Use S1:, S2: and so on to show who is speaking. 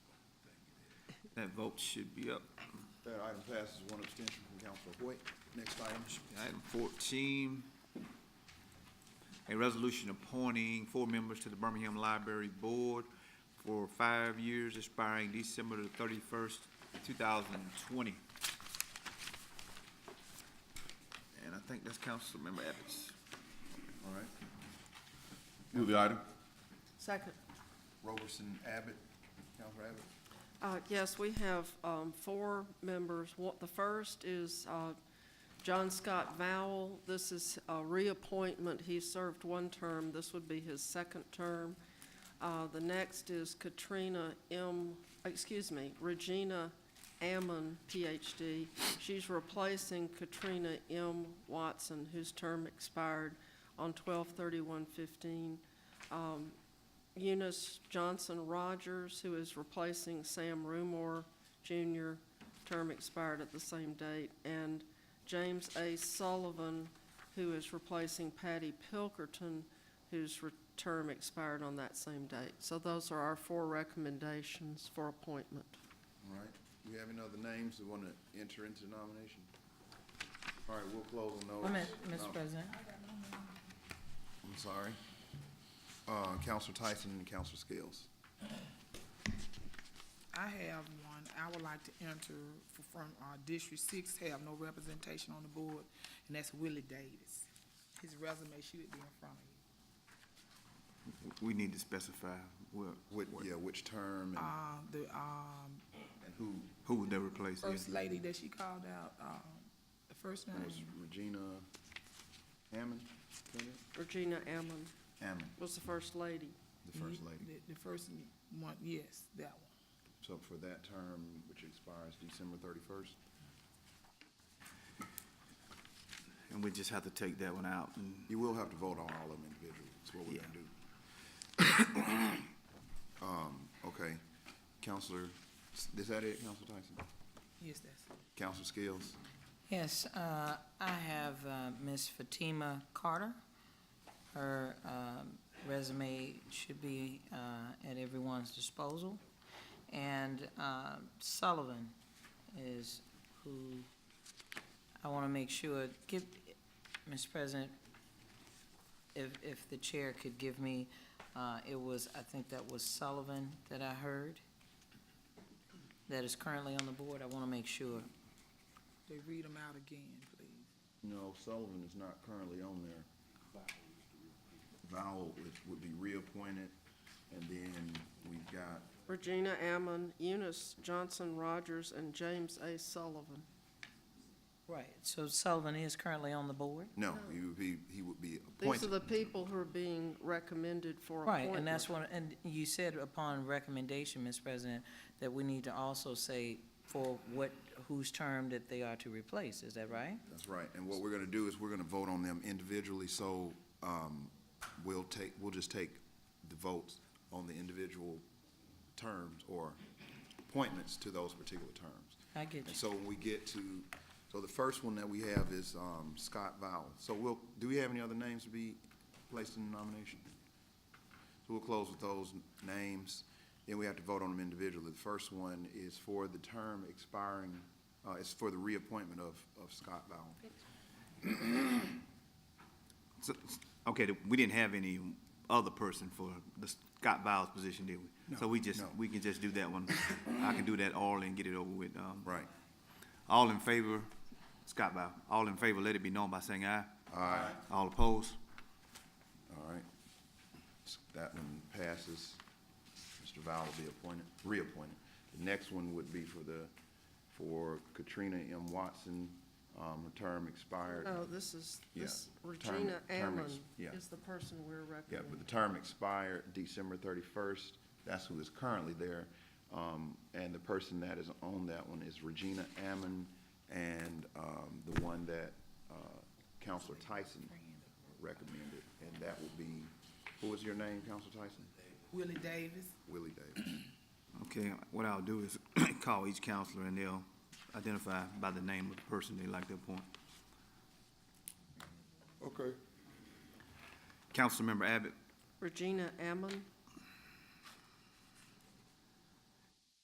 S1: That vote should be up.
S2: That item passes, one abstention from Councilor Hoyt. Next item.
S1: Item fourteen, a resolution appointing four members to the Birmingham Library Board for five years expiring December the thirty-first, two thousand and twenty. And I think that's Councilmember Evans.
S2: All right.
S3: Move the item.
S4: Second.
S2: Roberson Abbott, Councilor Abbott.
S4: Uh, Yes, we have um, four members. One- The first is uh, John Scott Vowell. This is a reappointment. He served one term. This would be his second term. Uh, The next is Katrina M., excuse me, Regina Ammon, Ph.D. She's replacing Katrina M. Watson, whose term expired on 12/31/15. Eunice Johnson Rogers, who is replacing Sam Rumor Jr., term expired at the same date, and James A. Sullivan, who is replacing Patty Pilkerton, whose re- term expired on that same date. So those are our four recommendations for appointment.
S2: All right. Do we have any other names that want to enter into nomination? All right, we'll close on those.
S5: One minute,
S2: No,
S5: Mr. President.
S2: I'm sorry. Uh, Counselor Tyson and Counselor Scales.
S6: I have one. I would like to enter f- from uh, District Six, have no representation on the board, and that's Willie Davis. His resume should be in front of you.
S1: We need to specify where,
S2: Which, yeah, which term and-
S6: Uh, The um,
S2: and who?
S1: who would they replace?
S6: first lady that she called out, um, the first name,
S2: Was Regina Hammond?
S4: Regina Ammon
S2: Hammond,
S4: was the first lady.
S2: the first lady.
S6: the- the first one, yes, that one.
S2: So for that term, which expires December thirty-first?
S1: And we just have to take that one out and
S2: You will have to vote on all of them individually, that's what we're gonna do. Um, okay, Counselor, is that it, Counselor Tyson?
S6: Yes, that's it.
S2: Counselor Scales?
S5: Yes, uh, I have uh, Ms. Fatima Carter. Her um, resume should be uh, at everyone's disposal. And uh, Sullivan is who I want to make sure, give, Mr. President, if, if the chair could give me, uh, it was, I think that was Sullivan that I heard, that is currently on the board. I want to make sure.
S6: They read them out again, please.
S2: No, Sullivan is not currently on there. Vowell is, would be reappointed, and then we've got,
S4: Regina Ammon, Eunice Johnson Rogers, and James A. Sullivan.
S5: Right, so Sullivan is currently on the board?
S2: no, he would be, he would be
S4: These are
S2: appointed.
S4: the people who are being recommended for
S5: Right,
S4: appointment.
S5: and that's what, and you said upon recommendation, Ms. President, that we need to also say for what, whose term that they are to replace, is that right?
S2: That's right, and what we're gonna do is we're gonna vote on them individually, so, um, we'll take, we'll just take the votes on the individual terms or appointments to those particular terms.
S5: I get
S2: And
S5: you.
S2: so when we get to, so the first one that we have is, um, Scott Vowell. So we'll, do we have any other names to be placed in the nomination? So we'll close with those names, then we have to vote on them individually. The first one is for the term expiring, uh, it's for the reappointment of, of Scott Vowell.
S1: So, okay, th- we didn't have any other person for the Scott Biles position, did we? So we just,
S2: no.
S1: we can just do that one. I can do that all and get it over with. Um,
S2: Right.
S1: All in favor, Scott Biles, all in favor, let it be known by saying aye.
S2: Aye.
S1: All opposed?
S2: All right. S- That one passes. Mr. Val will be appointed, reappointed. The next one would be for the, for Katrina M. Watson, um, her term expired.
S4: No, Oh, this is,
S2: Yeah,
S4: this
S2: term-
S4: Regina
S2: term
S4: Ammon
S2: ex- yeah.
S4: is the person we're
S2: Yeah, but the
S4: recommending.
S2: term expired December thirty-first. That's who is currently there. Um, and the person that is on that one is Regina Ammon and, um, the one that, uh, Counselor Tyson recommended. And that would be, who was your name, Counselor Tyson?
S6: Willie Davis,
S2: Willie Davis.
S1: Okay, what I'll do is call each counselor and they'll identify by the name of the person they like to appoint.
S2: Okay.
S1: Councilmember Abbott,
S4: Regina Ammon,